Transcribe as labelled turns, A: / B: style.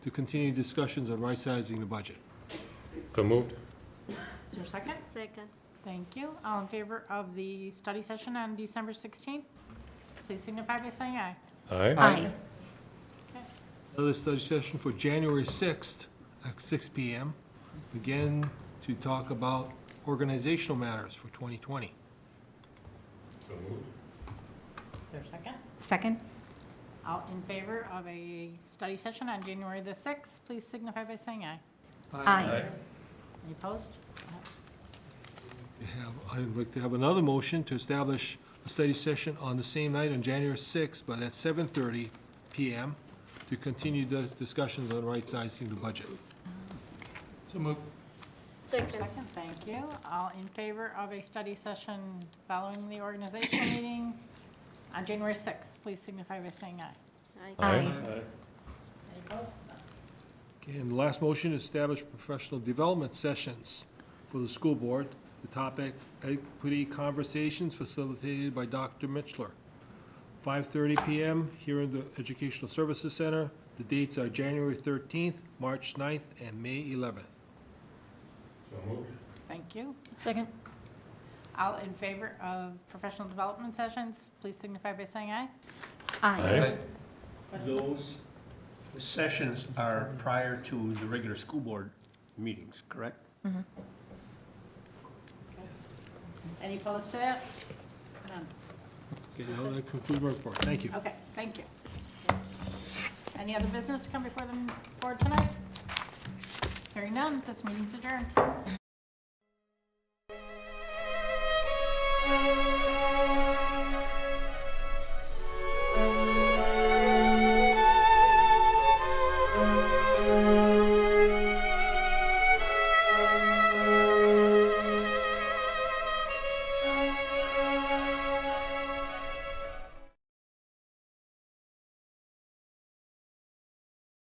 A: to continue discussions on right-sizing the budget.
B: So moved?
C: Is there a second?
D: Second.
C: Thank you. All in favor of the study session on December 16th? Please signify by saying aye.
B: Aye.
D: Aye.
A: Another study session for January 6th at six PM, again to talk about organizational matters for 2020.
B: So moved.
C: Is there a second?
D: Second?
C: All in favor of a study session on January the 6th? Please signify by saying aye.
D: Aye.
C: Any opposed?
A: We have- I'd like to have another motion to establish a study session on the same night on January 6th, but at 7:30 PM, to continue the discussions on right-sizing the budget.
E: So moved.
D: Second.
C: Second, thank you. All in favor of a study session following the organizational meeting on January 6th? Please signify by saying aye.
D: Aye.
C: Any opposed? None.
A: Okay, And the last motion, establish professional development sessions for the school board. The topic, equity conversations facilitated by Dr. Mitchler. 5:30 PM here in the Educational Services Center. The dates are January 13th, March 9th, and May 11th.
B: So moved?
C: Thank you.
D: Second.
C: All in favor of professional development sessions? Please signify by saying aye.
D: Aye.
E: Those sessions are prior to the regular school board meetings, correct?
C: Any opposed to that? None.
A: Okay, now that concludes my report. Thank you.
C: Okay, thank you. Any other business to come before the board tonight? Hearing none, this meeting's adjourned.